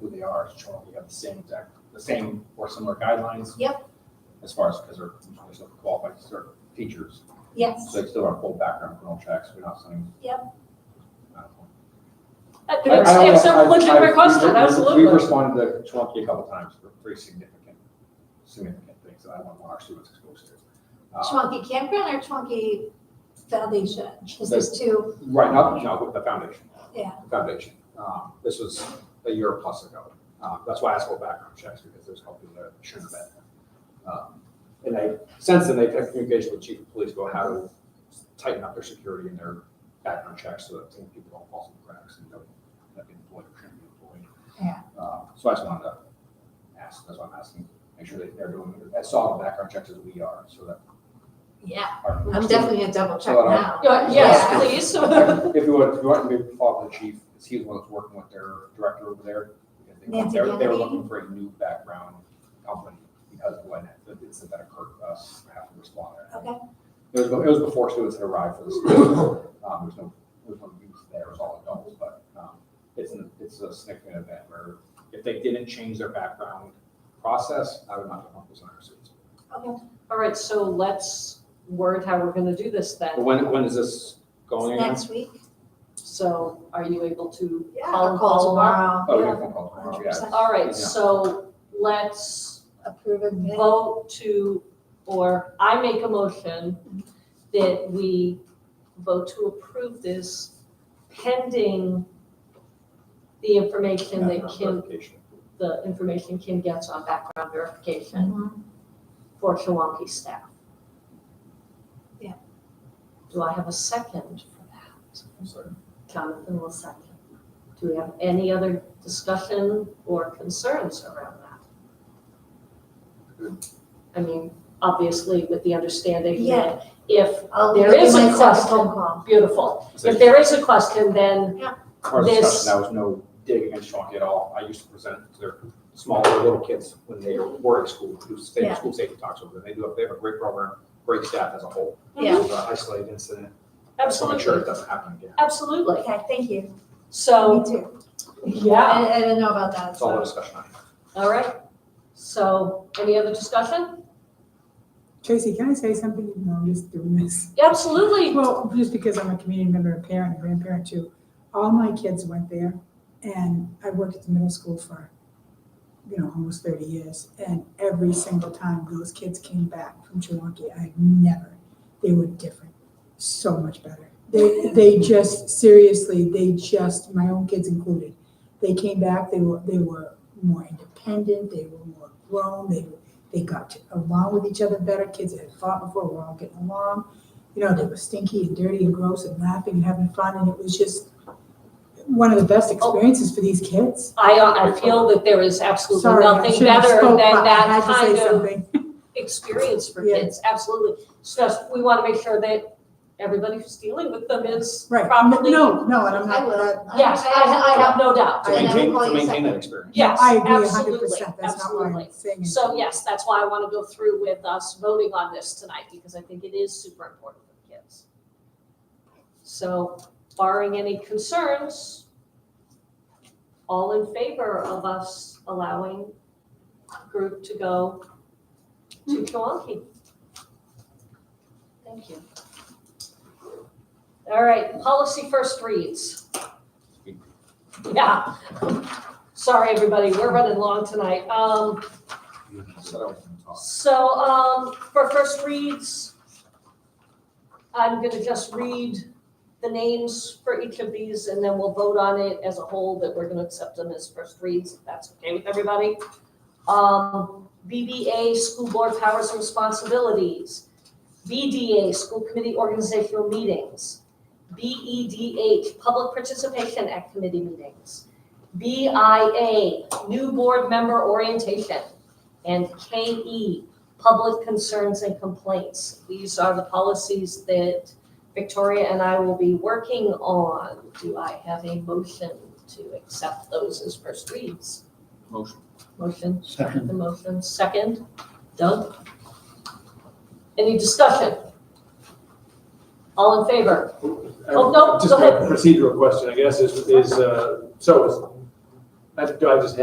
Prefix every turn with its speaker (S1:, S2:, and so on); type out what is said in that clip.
S1: who they are, it's showing we have the same exact, the same or similar guidelines.
S2: Yep.
S1: As far as, because they're, they're still qualified, they're teachers,
S2: Yes.
S1: so they still are full background criminal checks, we're not sending.
S2: Yep.
S1: I don't know.
S3: That-
S1: I- I
S3: That's
S1: don't
S3: that's
S1: know.
S3: a
S1: I've-
S3: legitimate
S1: I've-
S3: question,
S1: we've-
S3: absolutely.
S1: We've responded to Chwampy a couple times for pretty significant, significant things that I want our students exposed to. Uh,
S2: Chwunky Campground or Chwunky Foundation? This is two,
S1: Right, now, no, with the foundation.
S2: Yeah.
S1: The Foundation. Um, This was a year plus ago. Uh, That's why I asked for background checks, because there's a couple people that should have been. Um, And I, since then, they've engaged with chief of police about how to tighten up their security and their background checks so that people don't fall through the cracks and don't, that be employed or shouldn't be employed.
S2: yeah,
S1: Uh, So I just wanted to ask, that's why I'm asking, make sure that they're doing as solid background checks as we are, so that
S2: yeah.
S1: our.
S2: I'm definitely gonna double check
S1: Hold on.
S2: now.
S3: Yeah,
S1: Yeah.
S3: Yes, please.
S1: If you want, if you want to maybe follow up with the chief, because he was one that's working with their director over there. because they were-
S2: Nancy
S1: they were- They were
S2: Kennedy.
S1: looking for a new background company because of what, happened. It said that occurred to us, we uh, have to respond.
S2: Okay.
S1: It was, it was before students had arrived for this. Um, there's no, there's no youth there, it was all adults, but, um, it's, an- it's a significant event where if they didn't change their background process, I would not have helped those on our students.
S3: All right, so let's word how we're gonna do this
S1: But
S3: then.
S1: when, when is this going? again?
S2: Next week?
S3: So are you able to
S2: Yeah,
S3: call
S2: I'll
S3: and
S2: call tomorrow.
S1: Oh, we
S2: Yeah.
S1: have a phone call tomorrow, yeah.
S2: 100%.
S3: All
S1: Yeah.
S3: right, so let's
S2: Approve and pay.
S3: vote to, or I make a motion that we vote to approve this pending the information that
S1: Background
S3: Kim,
S1: verification.
S3: the information Kim gets on background verification
S2: Mhm.
S3: for Shawanki staff.
S2: Yeah.
S3: Do I have a second for that?
S1: I'm sorry.
S3: Jonathan will second. Do we have any other discussion or concerns around that? I mean, obviously with the understanding that if,
S2: I'll
S3: There
S2: give
S3: is a
S2: myself
S3: question.
S2: Phone call.
S3: beautiful,
S1: So
S3: if there is a question, then
S1: Part of the
S3: this-
S1: discussion, that was no dig against Chonky at all. I used to present to their smaller little kids when they were in school, who stayed
S2: Yeah.
S1: in school safety talks over there. They do, a- they have a great program, great staff as a whole.
S2: Yeah.
S1: It was an isolated incident. So make sure it
S3: absolutely,
S1: doesn't happen again.
S3: absolutely.
S2: Okay, thank you. Me
S3: So,
S2: too.
S3: yeah,
S2: I, I didn't know about that.
S1: That's all the discussion I have.
S3: all right. So any other discussion?
S4: Tracy, can I say something? No, I'm just doing this.
S3: Absolutely.
S4: Well, just because I'm a community member, a parent, a grandparent too, all my kids went there and I worked at the middle school for, you know, almost thirty years. And every single time those kids came back from Chewunky, I never, they were different, so much better. They, they just, seriously, they just, my own kids included, they came back, they were, they were more independent, they were more grown, they, they got along with each other better, kids that had fought before were all getting along you know, they were stinky and dirty and gross and laughing and having fun, and it was just one of the
S3: Oh.
S4: best experiences for these kids.
S3: I, uh, I feel that there is absolutely
S4: Sorry, I
S3: nothing
S4: should have
S3: better than
S4: spoke, but I
S3: that
S4: had to
S3: kind
S4: say
S3: of
S4: something.
S3: experience for
S4: Yeah.
S3: kids, absolutely. It's just, we want to make sure that everybody who's dealing with them is
S4: Right,
S3: properly.
S4: no, no, and I'm
S2: I will.
S4: not,
S2: I-
S3: Yes, I, I have no doubt.
S1: To
S2: I never
S1: maintain,
S2: call
S1: to
S2: you
S1: maintain
S2: second.
S1: that experience.
S3: Yes,
S4: I agree hundred
S3: absolutely,
S4: percent, that's not what
S3: absolutely.
S4: I'm saying.
S3: So yes, that's why I want to go through with us voting on this tonight, because I think it is super important for the kids. So barring any concerns, all in favor of us allowing group to go to Kewonki? Thank you. All right, policy first reads. Yeah. Sorry, everybody, we're running long tonight. Um,
S1: So that was in talk.
S3: so, um, for first reads, I'm gonna just read the names for each of these and then we'll vote on it as a whole that we're gonna accept them as first reads, if that's okay with everybody. Um, BBA, School Board Powers and Responsibilities. BDA, School Committee Organizational Meetings. BEDH, Public Participation at Committee Meetings. BIA, New Board Member Orientation and KE, public concerns and complaints. These are the policies that Victoria and I will be working on. Do I have a motion to accept those as first reads?
S1: Motion.
S3: Motion,
S5: Second.
S3: the motion, second. Doug? Any discussion? All in favor? Oh, no,
S6: Just
S3: go
S6: a procedural question, I guess, is, is, uh, so, is- I- do I just